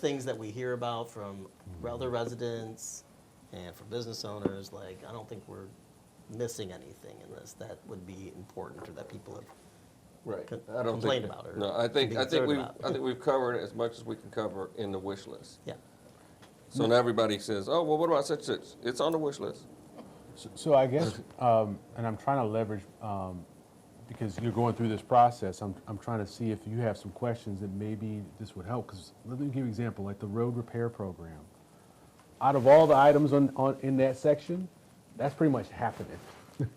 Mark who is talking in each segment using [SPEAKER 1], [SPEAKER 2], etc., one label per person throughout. [SPEAKER 1] things that we hear about from other residents and from business owners, like, I don't think we're missing anything in this that would be important or that people have
[SPEAKER 2] Right.
[SPEAKER 1] co-
[SPEAKER 2] I don't
[SPEAKER 1] complain
[SPEAKER 2] think-
[SPEAKER 1] about or
[SPEAKER 2] No, I think,
[SPEAKER 1] be
[SPEAKER 2] I
[SPEAKER 1] concerned
[SPEAKER 2] think we've,
[SPEAKER 1] about.
[SPEAKER 2] I think we've covered as much as we can cover in the wish list.
[SPEAKER 1] Yeah.
[SPEAKER 2] So
[SPEAKER 1] Mm.
[SPEAKER 2] now everybody says, oh, well, what about such, such? It's on the wish list.
[SPEAKER 3] So- So I guess, um, and I'm trying to leverage, um, because you're going through this process, I'm, I'm trying to see if you have some questions that maybe this would help, because let me give you an example, like the road repair program. Out of all the items on, on, in that section, that's pretty much happening,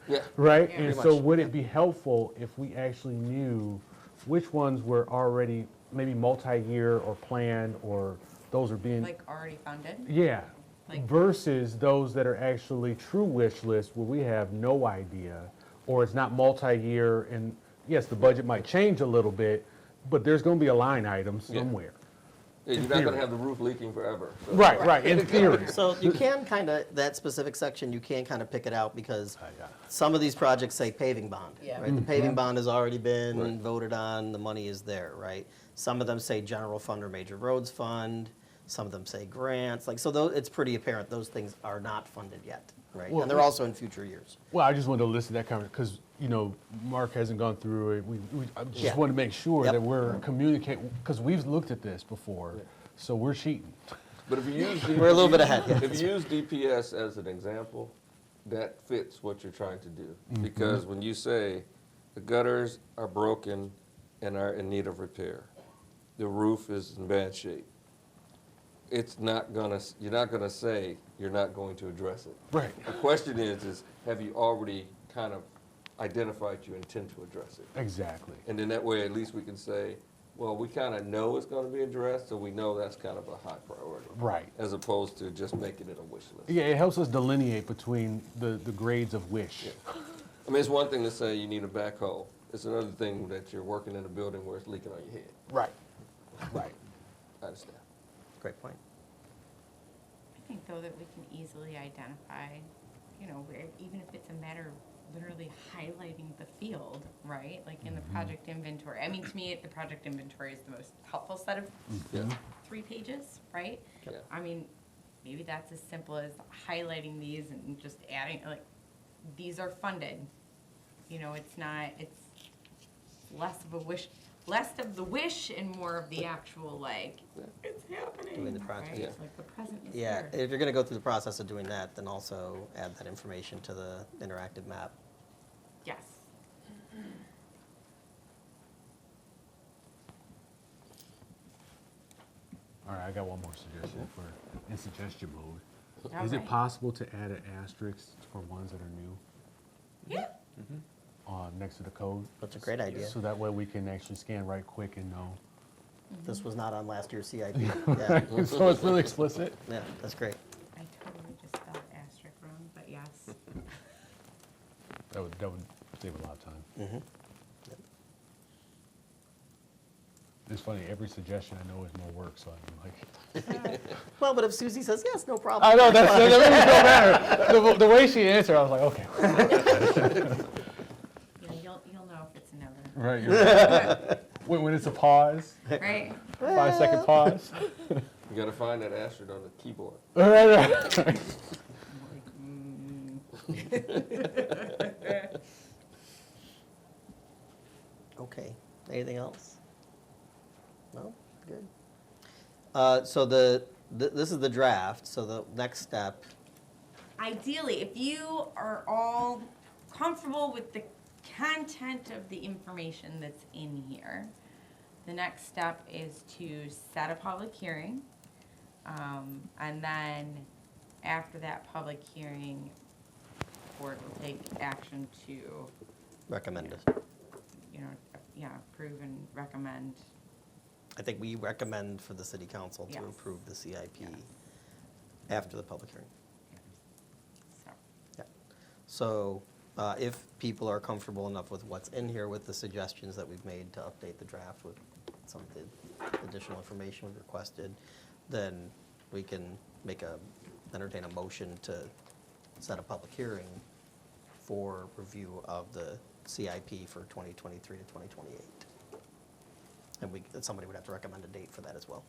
[SPEAKER 2] Yeah.
[SPEAKER 3] right?
[SPEAKER 4] Yeah.
[SPEAKER 3] And
[SPEAKER 2] Pretty
[SPEAKER 3] so
[SPEAKER 2] much.
[SPEAKER 3] would it be helpful if we actually knew which ones were already maybe multi-year or planned, or those are being
[SPEAKER 4] Like already funded?
[SPEAKER 3] yeah.
[SPEAKER 4] Like-
[SPEAKER 3] Versus those that are actually true wish lists where we have no idea, or it's not multi-year, and yes, the budget might change a little bit, but there's gonna be a line item
[SPEAKER 2] Yeah.
[SPEAKER 3] somewhere.
[SPEAKER 2] Yeah, You're not gonna
[SPEAKER 3] theory.
[SPEAKER 2] have the roof leaking forever. so-
[SPEAKER 3] Right, right, in theory.
[SPEAKER 1] So you can kind of, that specific section, you can kind of pick it out because
[SPEAKER 3] yeah.
[SPEAKER 1] some of these projects say paving bond.
[SPEAKER 4] Yeah.
[SPEAKER 1] right? The paving bond has already been
[SPEAKER 2] Right.
[SPEAKER 1] voted on, the money is there, right? Some of them say general fund or major roads fund, some of them say grants, like, so tho- it's pretty apparent those things are not funded yet, right?
[SPEAKER 3] Well,
[SPEAKER 1] And they're
[SPEAKER 3] we-
[SPEAKER 1] also in future years.
[SPEAKER 3] Well, I just wanted to listen to that comment, because, you know, Mark hasn't gone through it, we, we, I
[SPEAKER 1] Yeah.
[SPEAKER 3] just wanted to make sure
[SPEAKER 1] Yep.
[SPEAKER 3] that we're communicating, because we've looked at this before, so we're cheating.
[SPEAKER 2] But if you use.
[SPEAKER 1] We're a little bit ahead, yeah.
[SPEAKER 2] If you use DPS as an example, that fits what you're trying to do. Because when you say, the gutters are broken and are in need of repair, the roof is in bad shape, it's not gonna, s- you're not gonna say, you're not going to address it.
[SPEAKER 3] Right.
[SPEAKER 2] The question is, is have you already kind of identified you intend to address it?
[SPEAKER 3] Exactly.
[SPEAKER 2] And then that way, at least we can say, well, we kind of know it's going to be addressed, so we know that's kind of a high priority.
[SPEAKER 3] Right.
[SPEAKER 2] As opposed to just making it a wish list.
[SPEAKER 3] Yeah, it helps us delineate between the, the grades of wish.
[SPEAKER 2] I mean, it's one thing to say you need a backhoe. It's another thing that you're working in a building where it's leaking on your head.
[SPEAKER 3] Right. Right.
[SPEAKER 2] I understand.
[SPEAKER 1] Great point.
[SPEAKER 4] I think though that we can easily identify, you know, where, even if it's a matter of literally highlighting the field, right? Like in the project inventory. I mean, to me, the project inventory is the most helpful set of
[SPEAKER 2] Yeah.
[SPEAKER 4] three pages, right?
[SPEAKER 2] Yeah.
[SPEAKER 4] I mean, maybe that's as simple as highlighting these and just adding, like, these are funded. You know, it's not, it's less of a wish, less of the wish and more of the actual, like,
[SPEAKER 2] Yeah.
[SPEAKER 4] it's happening.
[SPEAKER 1] Doing the project.
[SPEAKER 4] right?
[SPEAKER 2] Yeah.
[SPEAKER 4] It's Like the present is
[SPEAKER 1] Yeah,
[SPEAKER 4] here.
[SPEAKER 1] if you're gonna go through the process of doing that, then also add that information to the interactive map.
[SPEAKER 4] Yes.
[SPEAKER 3] All right, I got one more suggestion for, in suggestion mode.
[SPEAKER 4] All
[SPEAKER 3] Is it
[SPEAKER 4] right.
[SPEAKER 3] possible to add an asterisk for ones that are new
[SPEAKER 4] Yeah,
[SPEAKER 3] uh, next to the code?
[SPEAKER 1] That's a great idea.
[SPEAKER 3] So that way we can actually scan right quick and know.
[SPEAKER 1] This was not on last year's CIP. Yeah,
[SPEAKER 3] So it's really explicit?
[SPEAKER 1] yeah, that's great.
[SPEAKER 4] I totally just spelled asterisk wrong, but yes.
[SPEAKER 3] That would, that would save a lot of time. It's funny, every suggestion I know is more work, so I'm like.
[SPEAKER 1] Well, but if Susie says yes, no problem.
[SPEAKER 3] I know, that's, that makes no matter. The, the way she answered, I was like, okay.
[SPEAKER 4] Yeah, you'll, you'll know if it's another,
[SPEAKER 3] Right. you're- When, when it's a pause,
[SPEAKER 4] right?
[SPEAKER 3] five second pause.
[SPEAKER 2] You got to find that asterisk on the keyboard.
[SPEAKER 3] All right, right.
[SPEAKER 1] Okay, anything else? No, good. Uh, so the, th- this is the draft, so the next step,
[SPEAKER 4] ideally, if you are all comfortable with the content of the information that's in here, the next step is to set a public hearing. Um, and then after that public hearing, board will take action to, you
[SPEAKER 1] recommended.
[SPEAKER 4] know, yeah, approve and recommend.
[SPEAKER 1] I think we recommend for the city council to
[SPEAKER 4] Yes.
[SPEAKER 1] approve the CIP
[SPEAKER 4] Yes.
[SPEAKER 1] after the public hearing.
[SPEAKER 4] So,
[SPEAKER 1] Yeah. So uh, if people are comfortable enough with what's in here, with the suggestions that we've made to update the draft with some of the additional information we've requested, then we can make a, entertain a motion to set a public hearing for review of the CIP for 2023 to 2028. And we, that somebody would have to recommend a date for that as well.